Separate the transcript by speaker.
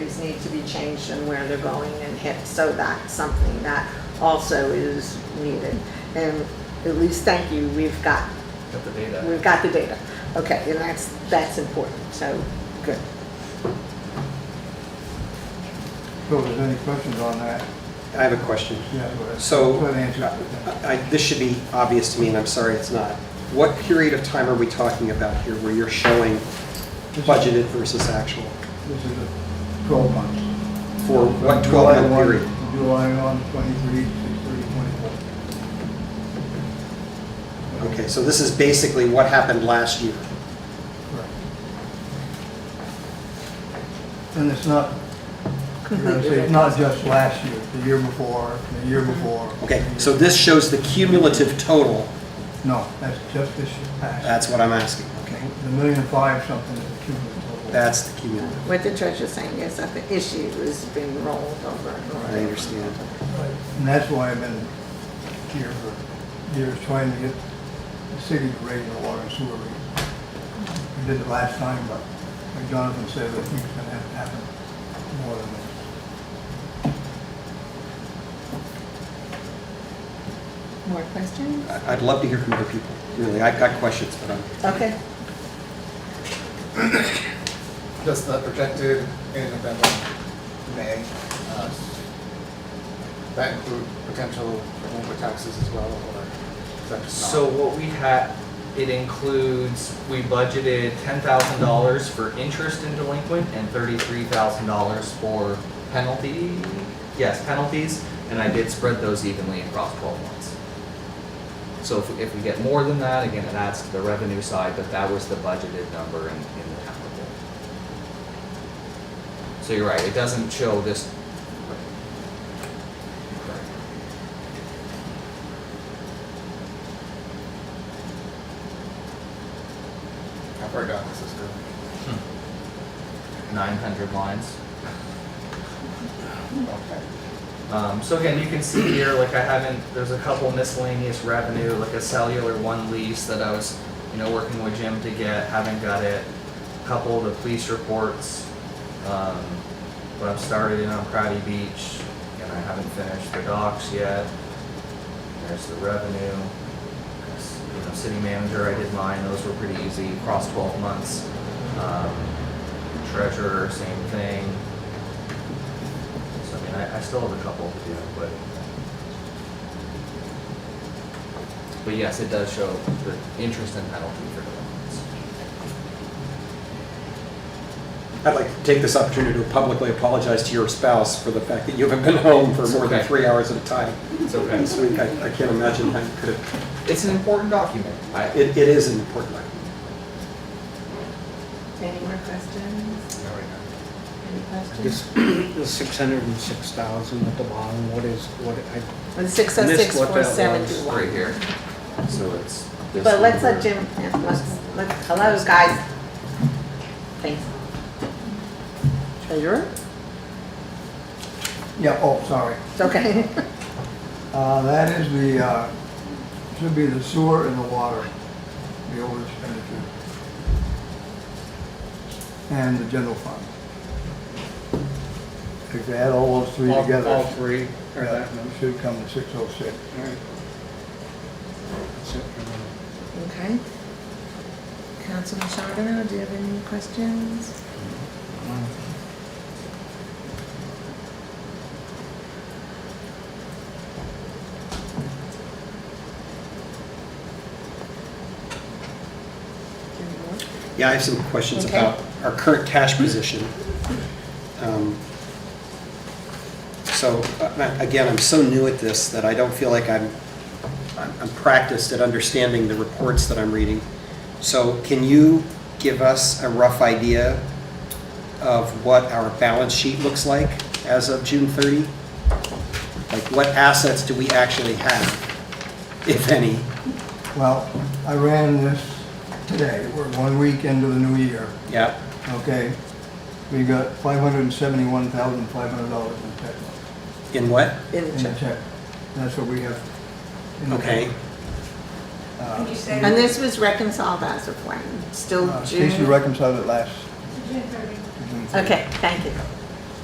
Speaker 1: need to be changed and where they're going and hit, so that's something that also is needed. And at least, thank you, we've got,
Speaker 2: Got the data.
Speaker 1: we've got the data. Okay, and that's, that's important, so, good.
Speaker 3: So if there's any questions on that,
Speaker 4: I have a question.
Speaker 3: yeah, go ahead.
Speaker 4: So-
Speaker 3: Go ahead and answer it.
Speaker 4: I- This should be obvious to me, and I'm sorry it's not. What period of time are we talking about here where you're showing budgeted versus actual?
Speaker 3: This is a 12 months.
Speaker 4: For what
Speaker 3: July
Speaker 4: 12-month
Speaker 3: 1,
Speaker 4: period?
Speaker 3: July 1, 23, 6/30, 24.
Speaker 4: Okay, so this is basically what happened last year.
Speaker 3: Correct. And it's not, you know,
Speaker 1: Completely
Speaker 3: it's not just last year, the year before, the year before.
Speaker 4: Okay, so this shows the cumulative total.
Speaker 3: No, that's just this year past.
Speaker 4: That's what I'm asking, okay?
Speaker 3: The million five something is the cumulative total.
Speaker 4: That's the cumulative.
Speaker 1: What the treasurer's saying is that the issue is being rolled over and
Speaker 4: I
Speaker 1: over.
Speaker 4: understand.
Speaker 3: And that's why I've been here for years, trying to get the city to raise the water and sewer rate. We did it last time, but like Jonathan said, I think it's gonna have to happen more than this.
Speaker 1: More questions?
Speaker 4: I- I'd love to hear from other people, really. I've got questions, but I'm,
Speaker 1: Okay,
Speaker 2: That's not projected in November, May. Uh, That include potential removal taxes as well, or is that just not?
Speaker 5: So what we had, it includes, we budgeted ten thousand dollars for interest in delinquent and thirty-three thousand dollars for penalty, yes, penalties, and I did spread those evenly across twelve months. So if, if we get more than that, again, it adds to the revenue side, but that was the budgeted number in, in the town report. So you're right, it doesn't show this.
Speaker 2: How far down this is going?
Speaker 5: Nine hundred lines.
Speaker 2: Okay.
Speaker 5: Um, so again, you can see here, like I haven't, there's a couple miscellaneous revenue, like a cellular one lease that I was, you know, working with Jim to get, haven't got it. Couple of the police reports, um, but I've started in on Crowdy Beach and I haven't finished the docs yet. There's the revenue. There's, You know, city manager, I did mine, those were pretty easy, across twelve months. Um, treasurer, same thing. So I mean, I, I still have a couple to do, but. But yes, it does show the interest and penalty for delinquents.
Speaker 4: I'd like to take this opportunity to publicly apologize to your spouse for the fact that you haven't been home for more than
Speaker 5: Okay.
Speaker 4: three hours at a time.
Speaker 5: It's okay.
Speaker 4: This week, I I can't imagine how you could have
Speaker 5: It's an important document. I,
Speaker 4: It, it is an important item.
Speaker 1: any more questions?
Speaker 2: All right, now.
Speaker 1: Any questions?
Speaker 6: This, the six hundred and six thousand at the bottom, what is, what, I,
Speaker 1: Six oh six,
Speaker 6: Missed what that
Speaker 1: four
Speaker 6: was.
Speaker 5: it's
Speaker 1: seventy-one.
Speaker 5: right here. So it's. this
Speaker 1: But let's let
Speaker 5: number.
Speaker 1: Jim, yeah, let's, let's, hello, guys. Thanks. Treasurer?
Speaker 3: Yeah, oh, sorry.
Speaker 1: It's okay.
Speaker 3: Uh, that is the, uh, should be the sewer and the water, the over expenditure. And the general fund. If you add all those three
Speaker 6: all,
Speaker 3: together.
Speaker 6: all three are
Speaker 3: Yeah,
Speaker 6: that
Speaker 3: it
Speaker 6: number?
Speaker 3: should come to six oh six.
Speaker 6: All right. That's it for now.
Speaker 1: Okay. Councilman Charbonneau, do you have any questions? Any more?
Speaker 4: Yeah, I have some questions
Speaker 1: Okay.
Speaker 4: about our current cash position. Um, So, uh, again, I'm so new at this that I don't feel like I'm, I'm I'm practiced at understanding the reports that I'm reading. So can you give us a rough idea of what our balance sheet looks like as of June 30? Like, what assets do we actually have, if any?
Speaker 3: Well, I ran this today, we're one week into the new year,
Speaker 4: Yeah,
Speaker 3: okay? We got five hundred and seventy-one thousand, five hundred dollars in check,
Speaker 4: in what?
Speaker 1: In
Speaker 3: in
Speaker 1: the
Speaker 3: the
Speaker 1: check.
Speaker 3: check. That's what we have. in the
Speaker 4: Okay.
Speaker 3: check. Uh,
Speaker 7: Could you say
Speaker 1: And this was reconciled as of when? Still
Speaker 3: uh, Stacy
Speaker 1: June?
Speaker 3: reconciled it last.
Speaker 7: June 30th?
Speaker 3: June.
Speaker 1: Okay, thank you.